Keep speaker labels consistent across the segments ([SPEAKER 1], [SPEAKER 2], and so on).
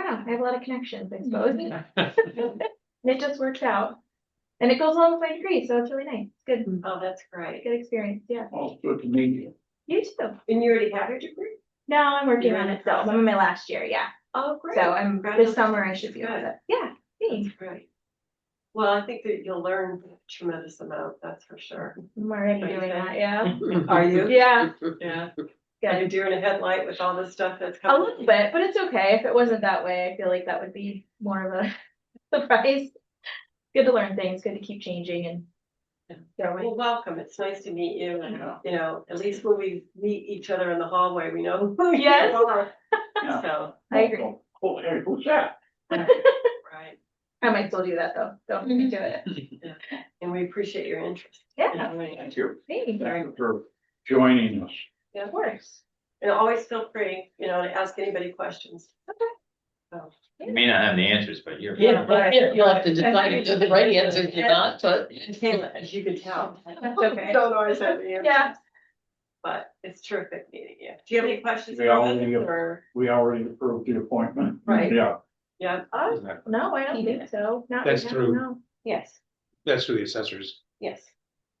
[SPEAKER 1] yeah, I have a lot of connections, I suppose.
[SPEAKER 2] Mm-hmm.
[SPEAKER 1] And it just works out. And it goes along with my degree, so it's really nice. It's good,
[SPEAKER 2] Oh, that's great.
[SPEAKER 1] good experience, yeah.
[SPEAKER 3] Well, good to meet you.
[SPEAKER 1] You too.
[SPEAKER 2] And you already have your degree?
[SPEAKER 1] No, I'm working
[SPEAKER 2] You're
[SPEAKER 1] on
[SPEAKER 2] in
[SPEAKER 1] it still. I'm in my last year, yeah.
[SPEAKER 2] Oh, great.
[SPEAKER 1] So I'm, this
[SPEAKER 2] Congratulations.
[SPEAKER 1] summer I should be able to, yeah, thanks.
[SPEAKER 2] That's great. Well, I think that you'll learn a tremendous amount, that's for sure.
[SPEAKER 1] I'm already
[SPEAKER 2] Thank
[SPEAKER 1] doing
[SPEAKER 2] you.
[SPEAKER 1] that, yeah.
[SPEAKER 2] Are you?
[SPEAKER 1] Yeah,
[SPEAKER 2] Yeah. Are you
[SPEAKER 1] good.
[SPEAKER 2] deer in a headlight with all this stuff that's
[SPEAKER 1] A
[SPEAKER 2] coming?
[SPEAKER 1] little bit, but it's okay. If it wasn't that way, I feel like that would be more of a surprise. Good to learn things, good to keep changing and
[SPEAKER 2] Yeah.
[SPEAKER 1] throwing.
[SPEAKER 2] Well, welcome. It's nice to meet you. and,
[SPEAKER 3] Yeah.
[SPEAKER 2] You know, at least when we meet each other in the hallway, we know who you
[SPEAKER 1] Yes.
[SPEAKER 2] are.
[SPEAKER 3] Yeah.
[SPEAKER 2] So,
[SPEAKER 1] I agree.
[SPEAKER 3] Oh, hey, who's that?
[SPEAKER 2] right.
[SPEAKER 1] I might still do that though. Don't
[SPEAKER 2] Mm-hmm.
[SPEAKER 1] do it.
[SPEAKER 2] And we appreciate your interest. in
[SPEAKER 1] Yeah,
[SPEAKER 2] doing it.
[SPEAKER 3] Thank you.
[SPEAKER 1] thanks.
[SPEAKER 3] Thank you for joining us.
[SPEAKER 1] Of course.
[SPEAKER 2] And always feel free, you know, to ask anybody questions.
[SPEAKER 4] You may not have the answers, but you're.
[SPEAKER 2] Yeah, but-
[SPEAKER 5] Yeah, you'll have to decide if they're the right answer or not, but.
[SPEAKER 2] As you can tell.
[SPEAKER 1] That's okay.
[SPEAKER 2] Don't always have the answers.
[SPEAKER 1] Yeah.
[SPEAKER 2] But it's terrific meeting you. Do you have any questions?
[SPEAKER 3] Yeah,
[SPEAKER 2] for us,
[SPEAKER 3] we-
[SPEAKER 2] or-
[SPEAKER 3] We already approved the appointment.
[SPEAKER 2] Right.
[SPEAKER 3] Yeah.
[SPEAKER 2] Yeah.
[SPEAKER 1] Uh, No, I don't think so. Not
[SPEAKER 6] That's
[SPEAKER 1] right now,
[SPEAKER 6] true.
[SPEAKER 1] no.
[SPEAKER 5] Yes,
[SPEAKER 6] That's through the assessors,
[SPEAKER 5] yes.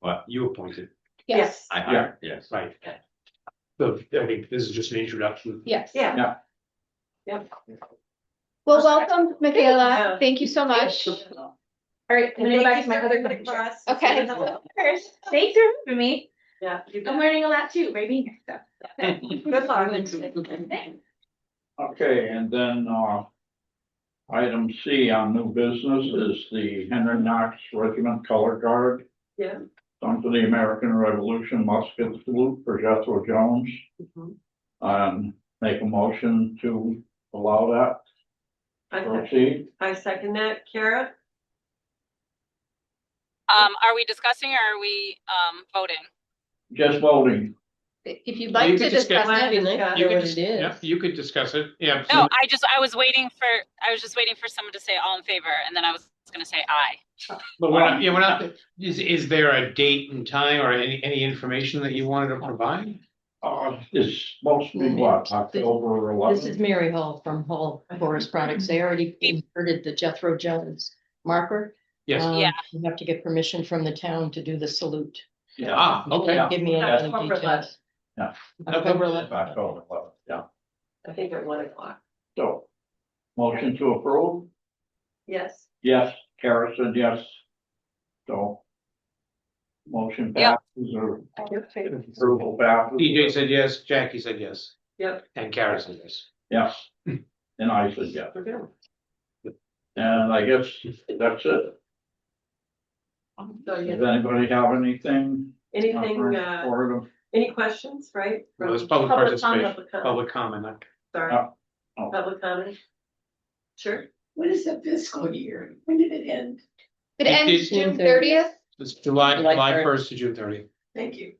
[SPEAKER 4] Well, you appointed,
[SPEAKER 5] Yes,
[SPEAKER 4] I hired, yes.
[SPEAKER 6] right? So, I mean, this is just an introduction.
[SPEAKER 5] yes.
[SPEAKER 2] Yeah.
[SPEAKER 3] Yeah.
[SPEAKER 2] Yep.
[SPEAKER 7] Well, welcome,
[SPEAKER 2] Yeah.
[SPEAKER 7] Michaela. Thank you so much.
[SPEAKER 1] All right, I'm
[SPEAKER 2] And
[SPEAKER 1] gonna go
[SPEAKER 2] thank
[SPEAKER 1] back
[SPEAKER 2] you
[SPEAKER 1] to my
[SPEAKER 2] so
[SPEAKER 1] other
[SPEAKER 2] much
[SPEAKER 1] question.
[SPEAKER 2] for us.
[SPEAKER 7] Okay.
[SPEAKER 1] First, Thanks for having me.
[SPEAKER 2] Yeah. you
[SPEAKER 1] I'm
[SPEAKER 2] got it.
[SPEAKER 1] learning a lot too, by being here, so.
[SPEAKER 2] Good luck.
[SPEAKER 1] Thanks.
[SPEAKER 3] Okay, and then, uh, item C on new business is the Henry Knox Regiment Color Guard.
[SPEAKER 2] Yeah.
[SPEAKER 3] Song to the American Revolution musket salute for Jethro Jones.
[SPEAKER 2] Mhm.
[SPEAKER 3] Um, make a motion to allow that
[SPEAKER 2] I sec-
[SPEAKER 3] proceed.
[SPEAKER 2] I second that. Kara?
[SPEAKER 8] Um, are we discussing or are we, um, voting?
[SPEAKER 3] Just voting.
[SPEAKER 7] If you'd
[SPEAKER 6] You
[SPEAKER 7] like to
[SPEAKER 6] could just
[SPEAKER 7] discuss
[SPEAKER 6] get-
[SPEAKER 7] it.
[SPEAKER 6] You
[SPEAKER 5] You
[SPEAKER 6] could, dis- yeah, you could discuss it, yeah.
[SPEAKER 8] No,
[SPEAKER 6] absolutely.
[SPEAKER 8] I just, I was waiting for, I was just waiting for someone to say all in favor and then I was gonna say aye.
[SPEAKER 6] But we're not, yeah, we're not, is, is there a date and time or any, any information that you wanted to provide?
[SPEAKER 3] Uh, it's mostly what, October
[SPEAKER 5] This is
[SPEAKER 3] eleventh?
[SPEAKER 5] Mary Hall from Hall Forest Products. They already inserted the Jethro Jones marker.
[SPEAKER 6] Yes,
[SPEAKER 5] Um,
[SPEAKER 8] Yeah.
[SPEAKER 5] You have to get permission from the town to do the salute.
[SPEAKER 6] ah, okay,
[SPEAKER 3] Yeah.
[SPEAKER 5] Give me
[SPEAKER 2] That's
[SPEAKER 5] any other
[SPEAKER 2] October
[SPEAKER 5] details.
[SPEAKER 3] Yeah.
[SPEAKER 5] October eleventh.
[SPEAKER 3] October eleventh, uh, yeah.
[SPEAKER 2] I think at one o'clock.
[SPEAKER 3] So, motion to approve?
[SPEAKER 2] Yes.
[SPEAKER 3] Yes, Kara said yes. So. Motion
[SPEAKER 8] Yeah.
[SPEAKER 3] passes or approval passes.
[SPEAKER 6] DJ said yes, Jackie said yes.
[SPEAKER 2] Yep.
[SPEAKER 6] And Kara said yes.
[SPEAKER 3] Yes, and I said yes.
[SPEAKER 2] We're good.
[SPEAKER 3] And I guess that's it.
[SPEAKER 2] So,
[SPEAKER 3] Does
[SPEAKER 2] yeah.
[SPEAKER 3] anybody have anything?
[SPEAKER 2] Anything, uh,
[SPEAKER 3] For them?
[SPEAKER 2] any questions, right?
[SPEAKER 6] Well, there's
[SPEAKER 2] From-
[SPEAKER 6] public participation,
[SPEAKER 2] Public comment,
[SPEAKER 6] public comment,
[SPEAKER 2] sorry.
[SPEAKER 3] Uh, oh.
[SPEAKER 2] Public comment. Sure.
[SPEAKER 9] What is the fiscal year? When did it end?
[SPEAKER 7] It
[SPEAKER 6] It
[SPEAKER 7] ends
[SPEAKER 6] is-
[SPEAKER 7] June thirtieth.
[SPEAKER 6] it's July,
[SPEAKER 5] July
[SPEAKER 6] July
[SPEAKER 5] third.
[SPEAKER 6] first to June thirtieth.
[SPEAKER 9] Thank you.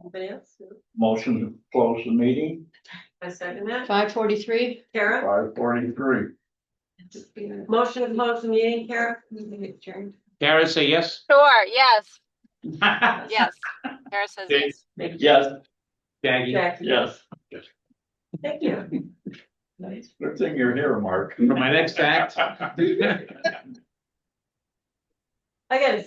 [SPEAKER 2] Anybody else? No?
[SPEAKER 3] Motion to close the meeting,
[SPEAKER 2] I second that.
[SPEAKER 5] Five forty-three?
[SPEAKER 2] Kara?
[SPEAKER 3] five forty-three.
[SPEAKER 9] Just being
[SPEAKER 2] Motion to close the meeting, Kara?
[SPEAKER 9] adjourned.
[SPEAKER 6] Kara say yes?
[SPEAKER 8] Sure, yes,
[SPEAKER 6] Jackie?
[SPEAKER 8] yes. Kara says
[SPEAKER 6] Okay.
[SPEAKER 8] yes.
[SPEAKER 3] Yes,
[SPEAKER 2] Jackie.
[SPEAKER 3] yes.
[SPEAKER 2] Thank you.
[SPEAKER 9] Nice.
[SPEAKER 3] Good thing you're here, Mark.
[SPEAKER 6] my next act.
[SPEAKER 2] I gotta